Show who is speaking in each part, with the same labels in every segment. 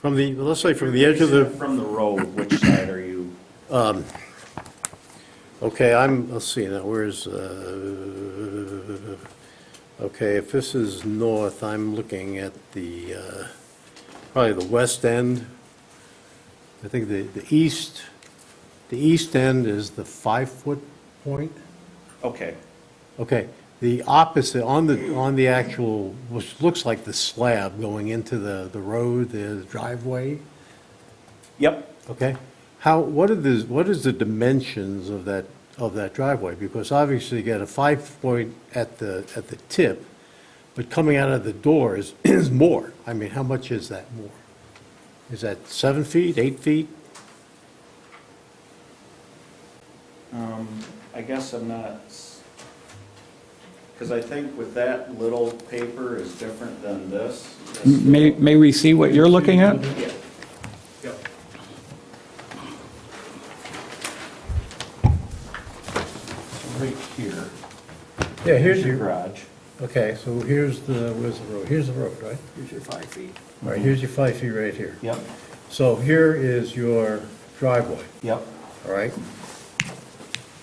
Speaker 1: From the, let's say from the edge of the,
Speaker 2: From the road, which side are you?
Speaker 1: okay, I'm, let's see, now where's, uh, okay, if this is north, I'm looking at the, uh, probably the west end. I think the, the east, the east end is the five-foot point.
Speaker 2: Okay,
Speaker 1: Okay, the opposite, on the, on the actual, which looks like the slab going into the, the road, the driveway,
Speaker 2: yep.
Speaker 1: okay? How, what are the, what is the dimensions of that, of that driveway? Because obviously you got a five point at the, at the tip, but coming out of the door is, is more. I mean, how much is that more? Is that seven feet, eight feet?
Speaker 2: Um, I guess I'm not, because I think with that little paper is different than this.
Speaker 3: May, may we see what you're looking at?
Speaker 2: Yeah. Yep. Right here
Speaker 1: Yeah,
Speaker 2: is your garage.
Speaker 1: okay, so here's the, where's the road? Here's the road, right?
Speaker 2: Here's your five feet.
Speaker 1: All right, here's your five feet right here.
Speaker 2: Yep,
Speaker 1: So here is your driveway,
Speaker 2: yep.
Speaker 1: all right?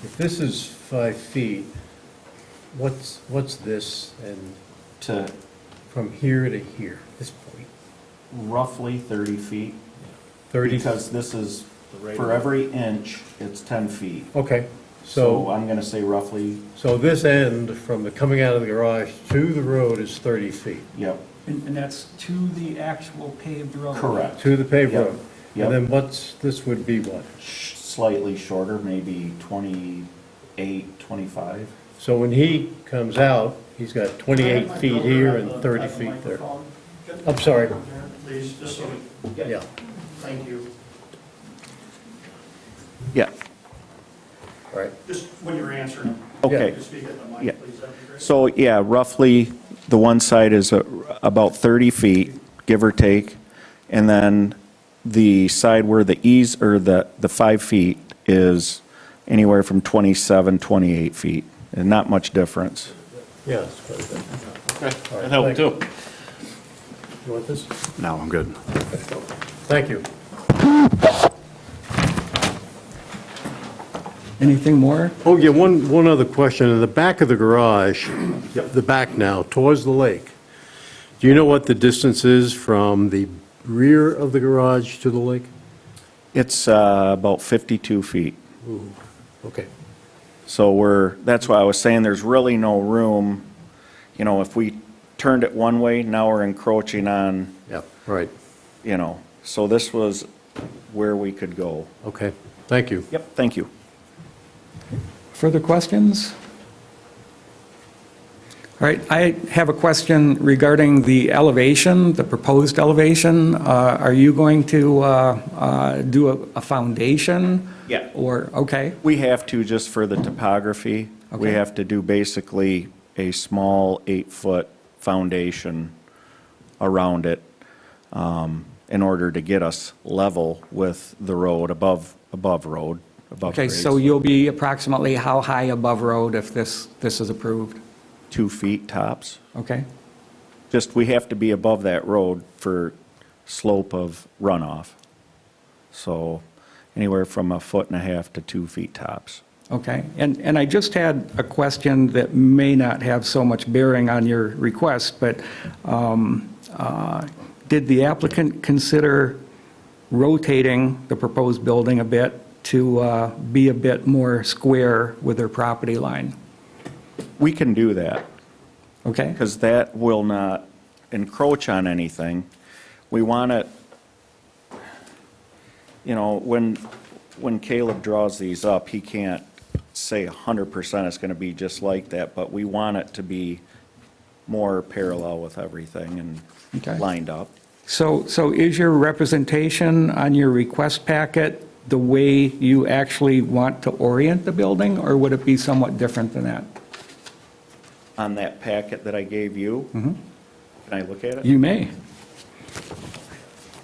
Speaker 1: If this is five feet, what's, what's this and
Speaker 2: To
Speaker 1: from here to here, this point?
Speaker 2: roughly 30 feet.
Speaker 1: 30?
Speaker 2: Because this is,
Speaker 1: rate
Speaker 2: for
Speaker 1: of-
Speaker 2: every inch, it's 10 feet.
Speaker 1: Okay,
Speaker 2: So uh,
Speaker 1: so,
Speaker 2: I'm going to say roughly,
Speaker 1: so this end from the coming out of the garage to the road is 30 feet,
Speaker 2: yep,
Speaker 4: And, and that's to the actual paved road?
Speaker 2: correct.
Speaker 1: to the paved
Speaker 2: Yep,
Speaker 1: road.
Speaker 2: yep.
Speaker 1: And then what's, this would be what?
Speaker 2: Sh- Slightly shorter, maybe 28, 25.
Speaker 1: So when he comes out, he's got 28 feet here and 30 feet there. I'm sorry,
Speaker 5: Please, just so,
Speaker 1: yeah.
Speaker 5: thank you.
Speaker 2: Yeah,
Speaker 1: All right,
Speaker 5: Just when you're answering,
Speaker 2: okay.
Speaker 5: just speak at the
Speaker 2: Yeah.
Speaker 5: mic, please, that'd be great.
Speaker 2: So, yeah, roughly, the one side is uh, about 30 feet, give or take, and then the side where the ease, or the, the five feet is anywhere from 27, 28 feet, and not much difference.
Speaker 1: yeah. it's quite a bit.
Speaker 6: That helped too.
Speaker 1: You want this?
Speaker 6: No, I'm good.
Speaker 1: Thank you.
Speaker 3: Anything more?
Speaker 1: Oh, yeah, one, one other question. In the back of the garage, the back now, towards the lake, do you know what the distance is from the rear of the garage to the lake?
Speaker 2: It's uh, about 52 feet.
Speaker 1: Okay.
Speaker 2: So we're, that's why I was saying there's really no room, you know, if we turned it one way, now we're encroaching on,
Speaker 1: Yeah, right.
Speaker 2: you know, so this was where we could go.
Speaker 1: Okay, thank you.
Speaker 2: Yep, thank you.
Speaker 3: Further questions? All right, I have a question regarding the elevation, the proposed elevation. Uh, Are you going to uh, uh, do a- a foundation?
Speaker 2: Yeah.
Speaker 3: Or, okay,
Speaker 2: We have to, just for the topography, we
Speaker 3: Okay.
Speaker 2: have to do basically a small eight-foot foundation around it um, in order to get us level with the road, above, above road, above
Speaker 3: okay,
Speaker 2: grades.
Speaker 3: so you'll be approximately how high above road if this, this is approved?
Speaker 2: Two feet tops.
Speaker 3: Okay,
Speaker 2: Just, we have to be above that road for slope of runoff. So anywhere from a foot and a half to two feet tops.
Speaker 3: okay. And, and I just had a question that may not have so much bearing on your request, but um, uh, did the applicant consider rotating the proposed building a bit to uh, be a bit more square with their property line?
Speaker 2: We can do that,
Speaker 3: Okay?
Speaker 2: because that will not encroach on anything. We want it, you know, when, when Caleb draws these up, he can't say 100% it's going to be just like that, but we want it to be more parallel with everything
Speaker 3: Okay.
Speaker 2: and lined up.
Speaker 3: So, so is your representation on your request packet the way you actually want to orient the building, or would it be somewhat different than that?
Speaker 2: on that packet that I gave you? Can I look at it?
Speaker 3: You may.